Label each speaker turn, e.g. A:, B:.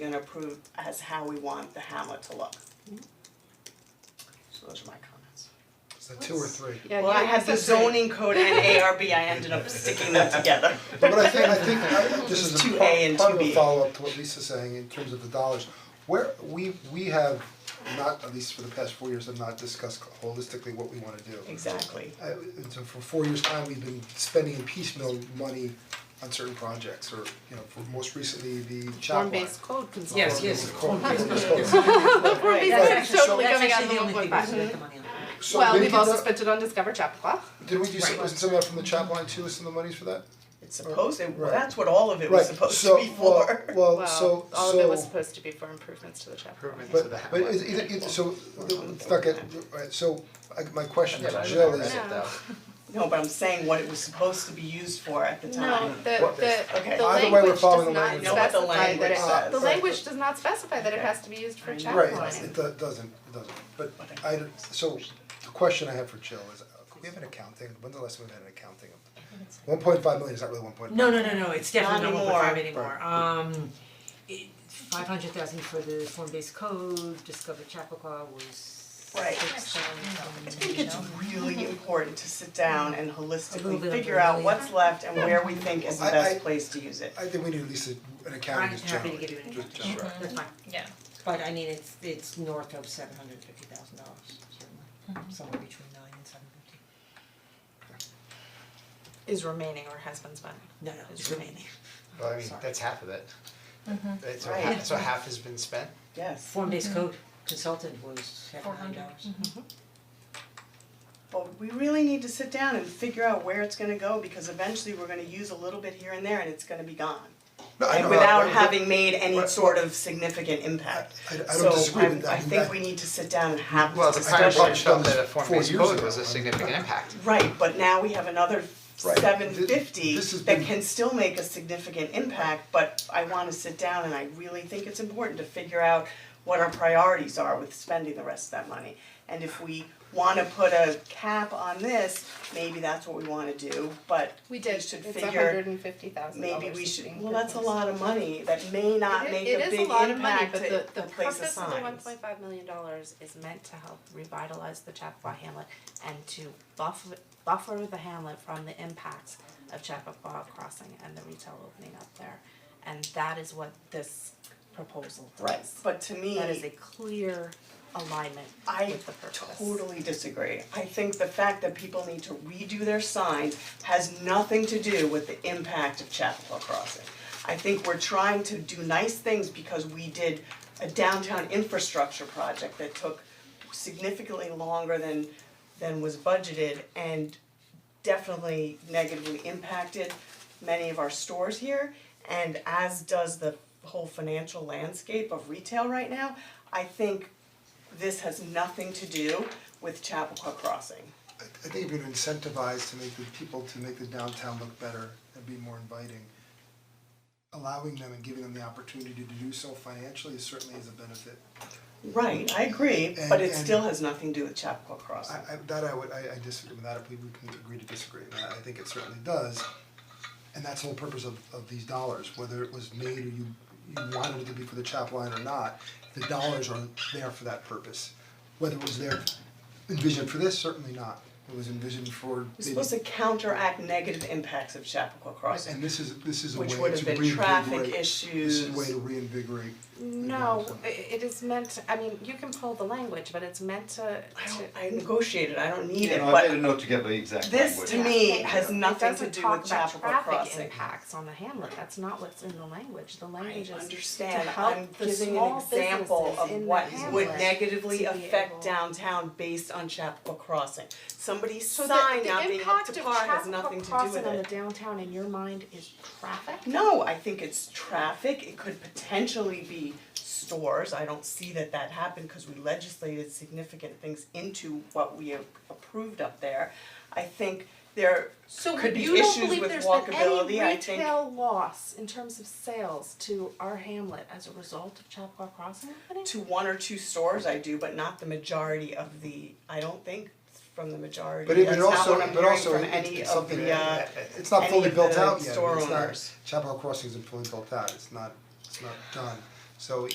A: and approve as how we want the hamlet to look. So those are my comments.
B: Is that two or three?
C: Yeah,
A: Well, I
C: you-
A: had the
C: that's great.
A: zoning code and ARB, I ended up sticking them together.
B: But what I think, I think, I- this is
A: There's
B: a
A: 2A
B: part,
A: and
B: part of a
A: 2B.
B: follow-up to what Lisa's saying in terms of the dollars. Where, we, we have not, at least for the past four years, have not discussed holistically what we wanna do.
A: Exactly.
B: I, and so for four years' time, we've been spending in piecemeal money on certain projects, or, you know, for most recently, the chop line.
C: Form-based code consultant.
D: Yes, yes.
B: The code, it's called-
C: Form-based
B: Right.
C: code's totally
B: So-
C: coming out of the
D: only
C: 1.5.
D: thing we spent the money on.
B: So
C: Well,
B: did
C: we've
B: we
C: also
B: do-
C: spent it on Discover Chappaqua.
B: Did we do some,
D: Right.
B: wasn't some of that from the chop line too, some of the monies for that?
A: It's supposed, it-
B: Right.
A: that's what all of it was supposed to be for.
B: Right, so, well, well, so,
C: Well, all of it was
B: so-
C: supposed to be for improvements to the Chappaqua.
E: improvements to the
B: But
E: hamlet.
B: but is either either so let's not get, alright, so I my question
E: Yeah, but I
B: to
E: don't
B: Jill
E: know
B: is,
E: that though.
A: No, but I'm saying what it was supposed to be used for at the
C: No,
A: time.
C: the
E: What this-
C: the
A: Okay.
B: Either
C: the
B: way, we're
C: language does
B: following the
C: not
B: language.
A: Know what the
C: specify that
A: language
C: it,
A: says.
C: the
B: Right.
C: language does not specify that it has to be used for chap
B: right,
C: lining.
B: it do- doesn't, it doesn't, but I don't- so the question I have for Jill is, uh, we have an accounting, when's the last time we had an accounting of? One point five million is not really one point five.
D: No, no, no, no, it's definitely
A: Not
D: not one point five
B: anymore.
D: anymore, um, it, five hundred thousand for the form-based code, Discover Chappaqua was
A: Right.
D: six
A: I
D: thousand.
A: think it's really important to sit down and
D: A little
A: holistically
D: bit of
A: figure out
D: really-
A: what's left and where we think is the
B: I- I-
A: best place to use it.
B: I think we need at least a- an accounting
D: I'm
B: just
D: happy to
B: generally,
D: give you an
B: just
D: example.
B: generally.
D: That's fine,
F: Yeah.
D: but I mean, it's it's north of seven hundred fifty thousand dollars, certainly, somewhere between nine and seven fifty.
C: Is remaining or has been spent.
D: No, no,
C: It's
D: it's
C: remaining.
D: remaining.
E: Well, I mean,
D: Sorry.
E: that's half of it. Right, so
A: Right.
E: half, so half has been spent.
A: Yes,
D: Form-based code consultant was half a million dollars.
A: but we really need to sit down and figure out where it's gonna go because eventually we're gonna use a little bit here and there and it's gonna be gone.
B: No, I
A: And
B: know,
A: without
B: I- I-
A: having made any
B: Right.
A: sort of significant impact.
B: I- I don't disagree with
A: So I'm- I
B: that.
A: think we need to sit down and have
E: Well,
A: this
E: the
A: discussion.
E: prior board
B: discussion.
E: felt that a form-based
B: Four years
E: code
B: ago.
E: was a significant impact.
A: Right, but now we have another
B: Right.
A: seven
B: Th-
A: fifty
B: this has
A: that
B: been-
A: can still make a significant impact, but I wanna sit down and I really think it's important to figure out what our priorities are with spending the rest of that money. And if we wanna put a cap on this, maybe that's what we wanna do, but
C: We did,
A: We
C: it's
A: should
C: a
A: figure-
C: hundred and fifty thousand dollars.
A: maybe we should, well, that's a lot of money that may not
C: It-
A: make
C: it
A: a
C: is
A: big
C: lot of money,
A: impact
C: but
A: to
C: the-
A: the place of signs.
C: The purpose of the one point five million dollars is meant to help revitalize the Chappaqua Hamlet and to buffer buffer the Hamlet from the impacts of Chappaqua Crossing and the retail opening up there. And that is what this proposal does.
A: Right, but to me,
C: That is a clear alignment
A: I
C: with the purpose.
A: totally disagree. I think the fact that people need to redo their signs has nothing to do with the impact of Chapel Crossing. I think we're trying to do nice things because we did a downtown infrastructure project that took significantly longer than than was budgeted and definitely negatively impacted many of our stores here and as does the whole financial landscape of retail right now. I think this has nothing to do with Chappaqua Crossing.
B: I think if you're incentivized to make the people, to make the downtown look better and be more inviting, allowing them and giving them the opportunity to do so financially is certainly is a benefit.
A: Right, I agree, but it
B: And-
A: still has nothing to do with Chappaqua Crossing.
B: I I that I would, I I disagree with that, if we we can agree to disagree, and I I think it certainly does. And that's the whole purpose of of these dollars, whether it was made or you you wanted it to be for the chap line or not, the dollars are there for that purpose. Whether it was there envisioned for this, certainly not, it was envisioned for
A: We're supposed to
B: maybe-
A: counteract negative impacts of Chappaqua Crossing.
B: and this is this is a way
A: Which
B: to
A: would
B: reinvigorate.
A: have been traffic
B: This is a
A: issues.
B: way to reinvigorate. the
C: No,
B: downtown.
C: i- it is meant, I mean, you can pull the language, but it's meant to
A: I
C: to
A: don't, I negotiated, I don't need it,
G: Yeah, no, I made a
A: but
G: note to get the exact language.
A: this to me
C: Yeah.
A: has nothing to do with Chappaqua Crossing.
C: It doesn't talk about traffic impacts on the hamlet, that's not what's in the language, the language
A: I
C: is to
A: understand, I'm
C: help the
A: giving
C: small
A: an
C: businesses in the hamlet.
A: example of what would negatively
C: to be
A: affect
C: able-
A: downtown based on Chappaqua Crossing. Somebody's
C: So the-
A: sign not being up to par has nothing to do with it.
C: The impact of Chappaqua crossing on the downtown in your mind is traffic?
A: No, I think it's traffic, it could potentially be stores, I don't see that that happened, cause we legislated significant things into what we have approved up there. I think there could be issues with walkability, I
C: So you don't believe there's been any
A: think,
C: retail loss in terms of sales to our hamlet as a result of Chappaqua Crossing happening?
A: to one or two stores I do, but not the majority of the, I don't think from the majority,
B: But it,
A: that's
B: but
A: not
B: also,
A: what I'm
B: but
A: hearing
B: also,
A: from
B: it-
A: any
B: it's
A: of
B: something,
A: the, uh,
B: that- it's not
A: any
B: fully
A: of the
B: built out yet,
A: store
B: it's not,
A: owners.
B: Chapel Crossing isn't fully built out, it's not, it's not done. So